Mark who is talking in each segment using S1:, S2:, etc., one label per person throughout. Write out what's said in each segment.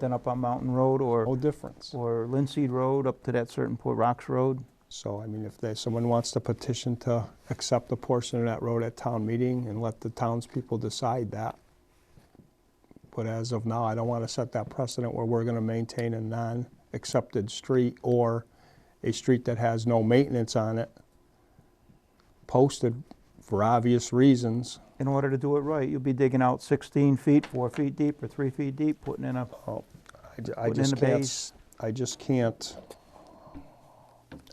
S1: than up on Mountain Road or,
S2: no difference.
S1: or Linseed Road up to that certain point, Rocks Road.
S2: So, I mean, if there's, someone wants to petition to accept a portion of that road at town meeting and let the townspeople decide that. But as of now, I don't want to set that precedent where we're going to maintain a non-accepted street or a street that has no maintenance on it, posted for obvious reasons.
S1: In order to do it right, you'll be digging out 16 feet, four feet deep or three feet deep, putting in a,
S2: Oh, I ju-
S1: Put
S2: I
S1: in
S2: just
S1: the
S2: can't,
S1: base.
S2: s- I just can't,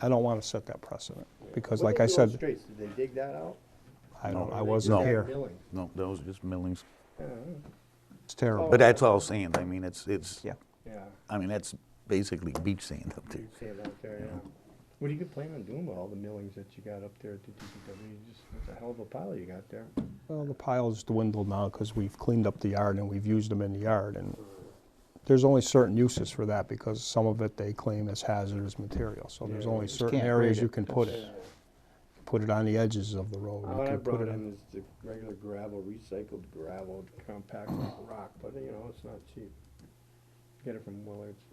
S2: I don't want to set that precedent, because like I said,
S3: Streets, did they dig that out?
S2: I don't,
S3: Or
S2: I
S3: they
S2: wasn't
S3: just had
S2: here.
S3: milling?
S4: No, those are just millings.
S2: It's terrible.
S4: But that's all sand. I mean, it's, it's,
S1: yeah.
S3: Yeah,
S4: I mean, that's basically beach sand up there.
S3: you see it out there, yeah. What do you plan on doing with all the millings that you got up there at the DPW? You just, it's a hell of a pile you got there.
S2: Well, the pile's dwindled now because we've cleaned up the yard and we've used them in the yard. And there's only certain uses for that because some of it they claim is hazardous material. So there's
S3: Yeah,
S2: only
S3: you
S2: certain
S1: can't
S2: areas
S1: grade
S2: you
S1: it.
S2: can put it. Put it on the edges of the road. You
S3: What I
S2: can put
S3: brought
S2: it
S3: in is the regular gravel, recycled gravel, compact rock, but you know, it's not cheap. Get it from Willards.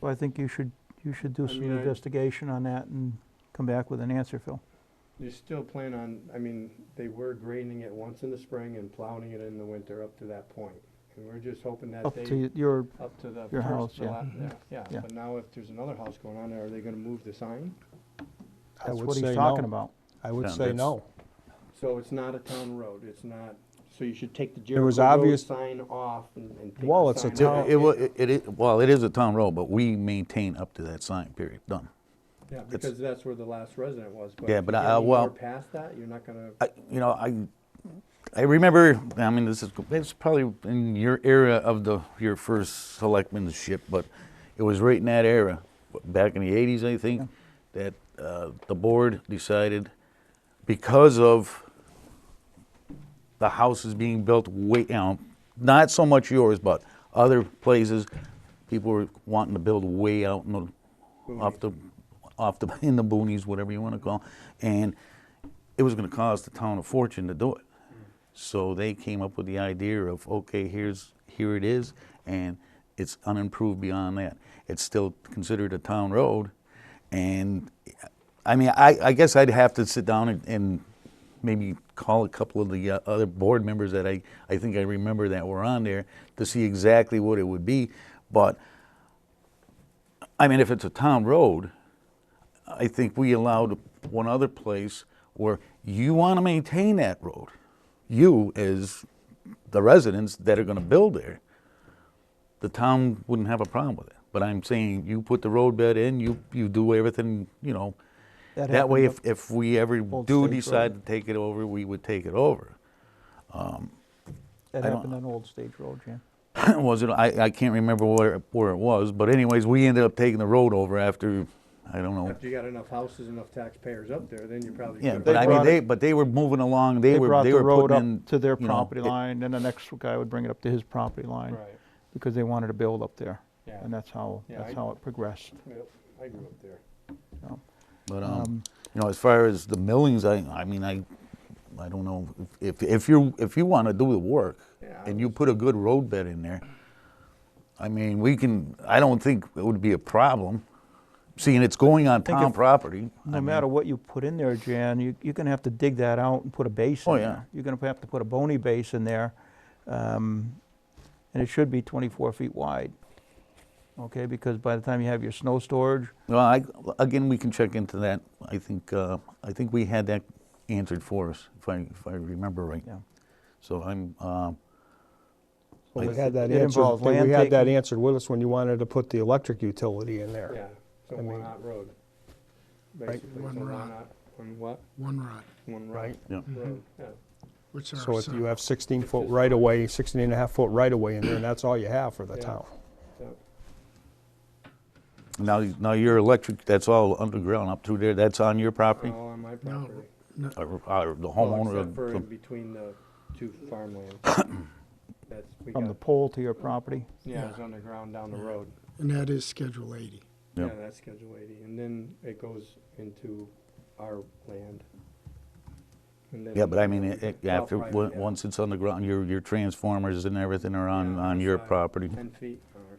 S1: Well, I think you should, you should do
S3: I
S1: some
S3: mean, I-
S1: investigation on that and come back with an answer, Phil.
S3: You still plan on, I mean, they were grading it once in the spring and plowing it in the winter up to that point. And we're just hoping that
S1: Up
S3: they.
S1: to y- your,
S3: Up to the
S1: Your house,
S3: first, the
S1: yeah.
S3: la- yeah, yeah,
S1: Yeah.
S3: but now if there's another house going on there, are they gonna move the sign?
S2: I
S1: that's
S2: would
S1: what he's
S2: say
S1: talking
S2: no.
S1: about.
S2: I would
S4: Yeah,
S2: say
S4: that's-
S2: no.
S3: So it's not a town road, it's not, so you should take the
S2: There
S3: Jericho
S2: was
S3: Road
S2: obvious-
S3: sign off and and take the sign
S2: Well, it's a
S3: off.
S4: It,
S2: town-
S4: it wa- it- it is- well, it is a town road, but we maintain up to that sign, period, done.
S3: Yeah, because that's where the last resident was, but.
S4: Yeah,
S3: if
S4: but
S3: you
S4: I-
S3: get
S4: I-
S3: any
S4: well-
S3: more Past that, you're not gonna,
S4: I, you know, I, I remember, I mean, this is, it's probably in your era of the, your first selectmanship, but it was right in that era, back in the eighties, I think, that, uh, the board decided because of the houses being built way, you know, not so much yours, but other places, people were wanting to build way out in the, off the, off the, in the boonies, whatever you want to call, and it was going to cost the town a fortune to do it. So they came up with the idea of, okay, here's, here it is, and it's unimproved beyond that. It's still considered a town road, and, I mean, I, I guess I'd have to sit down and, and maybe call a couple of the uh, other board members that I, I think I remember that were on there to see exactly what it would be, but, I mean, if it's a town road, I think we allowed one other place where you want to maintain that road. You, as the residents that are going to build there, the town wouldn't have a problem with it. But I'm saying you put the roadbed in, you, you do everything, you know.
S1: That
S4: That way, if,
S1: happened
S4: if we ever
S1: Old
S4: do
S1: States
S4: decide to
S1: Road.
S4: take it over, we would take it over.
S1: That
S4: I don't-
S1: happened on Old Stage Road, Jim.
S4: was it? I, I can't remember where, where it was, but anyways, we ended up taking the road over after, I don't know.
S3: after you got enough houses, enough taxpayers up there, then you probably.
S4: Yeah,
S3: could-
S4: but I mean,
S1: brought
S4: they, but they were moving along, they
S1: They
S4: were,
S1: brought
S4: they
S1: the
S4: were
S1: road
S4: putting
S1: up
S4: in.
S1: to their
S4: you know,
S1: property
S4: it-
S1: line, then the next guy would bring it up to his property line.
S3: Right,
S1: Because they wanted to build up there.
S3: Yeah.
S1: And that's how,
S3: Yeah,
S1: that's
S3: I-
S1: how it progressed.
S3: Yep, I grew up there.
S1: so.
S4: But, um, you know, as far as the millings, I, I mean, I, I don't know, if, if you, if you wanna do the work,
S3: Yeah, I
S4: and you put a good roadbed in there, I mean, we can, I don't think it would be a problem, seeing it's going on
S1: think
S4: town
S1: if-
S4: property. I
S1: No
S4: mean,
S1: matter what you put in there, Jan, you, you're gonna have to dig that out and put a base in
S4: Oh,
S1: there.
S4: yeah.
S1: You're gonna have to put a bony base in there, um, and it should be twenty-four feet wide. Okay, because by the time you have your snow storage,
S4: Well, I, again, we can check into that, I think, uh, I think we had that answered for us, if I, if I remember right.
S1: Yeah.
S4: So I'm, um,
S2: Well, we had that
S1: It
S2: answered,
S1: involves land
S2: we had that
S1: taking-
S2: answered with us when you wanted to put the electric utility in there.
S3: Yeah, so
S2: I
S3: one
S2: mean-
S3: hot road. Basically,
S5: One
S3: so one
S5: rod.
S3: hot, one what?
S5: One rod,
S3: One
S2: Right.
S3: right
S4: yeah.
S3: road, yeah.
S5: which
S2: So
S5: are
S2: if you
S5: some,
S2: have 16-foot right-of-way, 16 and a half foot right-of-way in there, and that's all you have for the
S3: Yeah.
S2: town.
S3: so-
S4: Now, now your electric, that's all underground up through there, that's on your property?
S3: All on my
S5: no,
S3: property.
S5: no,
S4: Or, or the
S3: Well,
S4: homeowner?
S3: Except
S4: of
S3: for
S4: the-
S3: in between the two farmlands. That's, we
S1: from the
S3: got,
S1: pole to your property,
S3: yeah, it's underground down the road.
S5: and that is Schedule 80.
S4: Yeah.
S3: Yeah, that's Schedule 80, and then it goes into our land. and then-
S4: Yeah, but I mean, it- it-
S3: Well,
S4: after,
S3: private,
S4: on-
S3: yeah.
S4: once it's on the ground, your, your transformers and everything are on,
S3: Yeah,
S4: on your
S3: side,
S4: property.
S3: Ten feet or